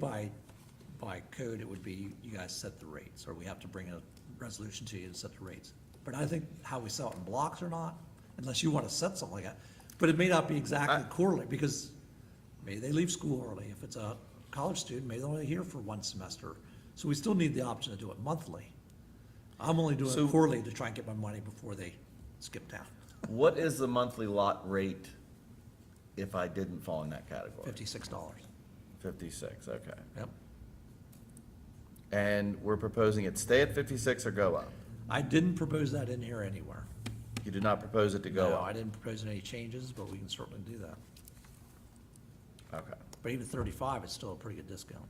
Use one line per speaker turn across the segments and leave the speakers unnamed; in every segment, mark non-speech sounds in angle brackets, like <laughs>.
By, by code, it would be you guys set the rates, or we have to bring a resolution to you to set the rates. But I think how we sell it in blocks or not, unless you want to set something like that, but it may not be exactly quarterly, because maybe they leave school early. If it's a college student, maybe they're only here for one semester. So we still need the option to do it monthly. I'm only doing
So-
it quarterly to try and get my money before they skip town.
What is the monthly lot rate if I didn't fall in that category?
Fifty-six dollars.
Fifty-six, okay.
Yep.
And we're proposing it stay at fifty-six or go up?
I didn't propose that in here anywhere.
You did not propose it to go
No, I
up?
didn't propose any changes, but we can certainly do that.
Okay.
But even thirty-five is still a pretty good discount.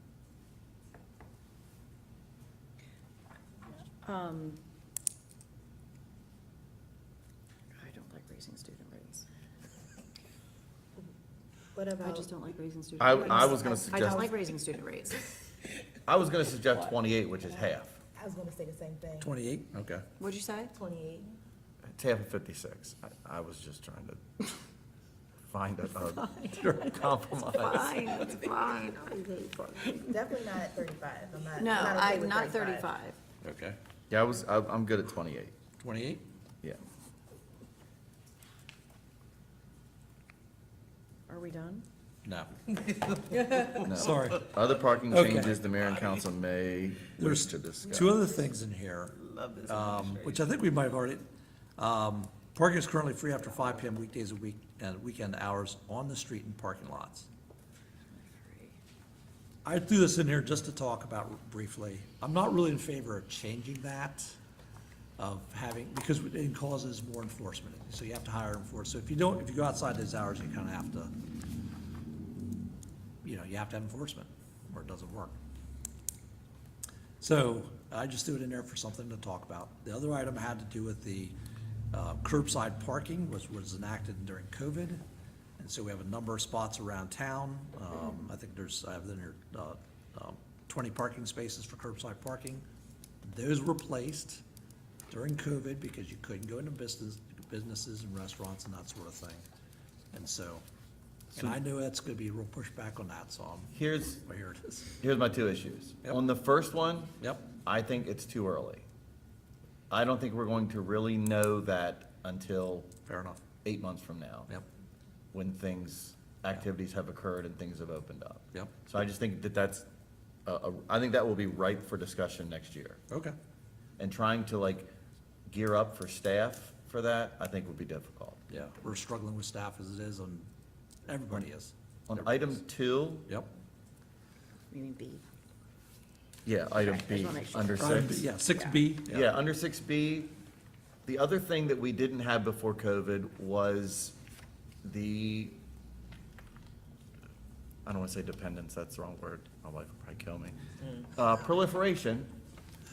Um, I don't like raising student rates.
What
I
about,
just don't like raising student.
I,
rates.
I was gonna
I
suggest,
don't like raising student rates.
I was gonna suggest twenty-eight, which is half.
I was gonna say the same thing,
Twenty-eight?
Okay.
What'd you say?
twenty-eight.
It's half of fifty-six. I, I was just trying to <laughs> find <laughs> a, a compromise.
Fine, <laughs> that's fine.
Definitely not at thirty-five, I'm not.
No,
okay
I'm
with
not thirty-five.
Okay.
Yeah, I was, I, I'm good at twenty-eight,
Twenty-eight?
yeah.
Are we done?
<laughs> No. <laughs>
No.
Sorry.
Other parking
Okay.
changes the mayor and council may wish
There's
to discuss.
two other things in here, um, which I think we might have already, um, parking is currently free after five PM weekdays a week and weekend hours on the street and parking lots. I threw this in here just to talk about briefly. I'm not really in favor of changing that, of having, because it causes more enforcement. So you have to hire enforcers. So if you don't, if you go outside those hours, you kind of have to, you know, you have to have enforcement, or it doesn't work. So I just threw it in there for something to talk about. The other item had to do with the uh, curbside parking, which was enacted during COVID. And so we have a number of spots around town. Um, I think there's, I have in there, uh, um, twenty parking spaces for curbside parking. Those were placed during COVID because you couldn't go into business, businesses and restaurants and that sort of thing. And so, and I know that's gonna be a real pushback on that, so I'm,
Here's,
well, here it is.
here's my two issues.
Yep.
On the first one.
Yep.
I think it's too early. I don't think we're going to really know that until
Fair enough.
eight months from now.
Yep,
When things, activities have occurred and things have opened up.
Yep.
So I just think that that's, uh, uh, I think that will be ripe for discussion next year.
okay.
And trying to like gear up for staff for that, I think would be difficult.
Yeah, we're struggling with staff as it is, and everybody is.
On item two,
Yep.
You mean B?
yeah, item
Okay, I just
B,
wanna make sure.
under
Item
six.
B, Yeah, six B.
Yeah, under six B, the other thing that we didn't have before COVID was the, I don't wanna say dependence, that's the wrong word, my wife will probably kill me. Uh, proliferation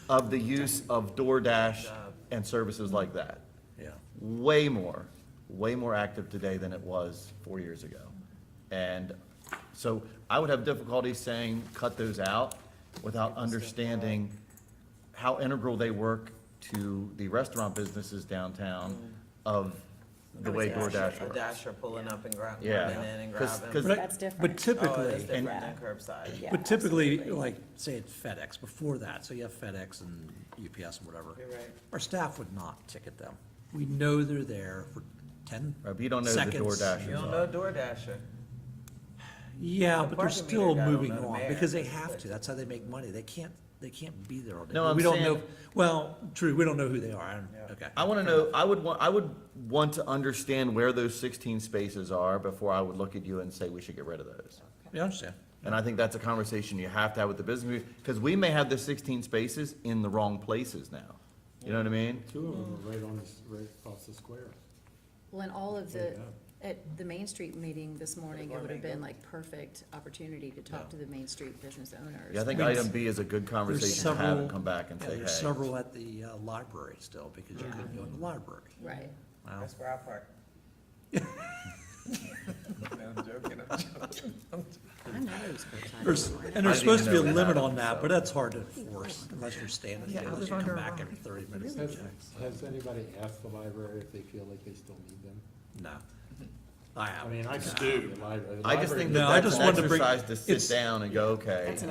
of the use of DoorDash and services like that.
Yeah,
Way more, way more active today than it was four years ago. And so I would have difficulty saying cut those out without understanding how integral they work to the restaurant businesses downtown of the way DoorDash
A
works.
dasher pulling up and grabbing,
Yeah.
running in and
Yeah. 'Cause-
grabbing.
'cause-
But I-
That's different.
But
Oh, it is
typically,
different than
and-
curbside.
Yeah,
but typically,
absolutely.
like, say at FedEx, before that, so you have FedEx and UPS and whatever.
You're right.
Our staff would not ticket them. We know they're there for ten
Right, but you don't know who the
seconds.
DoorDash
You
is.
don't know DoorDasher. Dasher.
Yeah,
The
but they're
parking meter
still
guy don't
moving
know the
on,
mayor.
because they have to, that's how they make money, they can't, they can't be there all day.
No, I'm
We don't know-
saying- Uh,
Well, true, we don't know who they are, I don't-
Yeah.
okay.
I wanna know, I would want, I would want to understand where those sixteen spaces are before I would look at you and say we should get rid of those.
Yeah, I understand.
And I think that's a conversation you have to have with the business, because we may have the sixteen spaces in the wrong places now. You know what I mean?
Two of them are right on this, right across the square.
Well, in all of the,
Yeah.
at the Main Street meeting this morning, it would have been like perfect opportunity to talk to the Main Street business owners.
Yeah, I think item B is a good
There's
conversation to have
several.
and come back and
yeah,
say,
There's
hey.
several at the uh, library still, because you couldn't go in the library.
Right.
Wow.
That's where I <laughs> park. No, I'm joking, I'm joking.
I know those curbside.
There's,
people. I
and
know.
there's
I didn't
supposed to be a
know that.
limit on that, but that's hard to enforce unless you're standing there,
I
unless
was
you come
under
back
a
every thirty minutes.
Has, has anybody asked the library if they feel like they still need them?
No. I
I
haven't.
mean, I do.
I just think
Oh, No, I
that that's
just
an
wanted to bring-
exercise to
it's-
sit down and go, okay.
That's an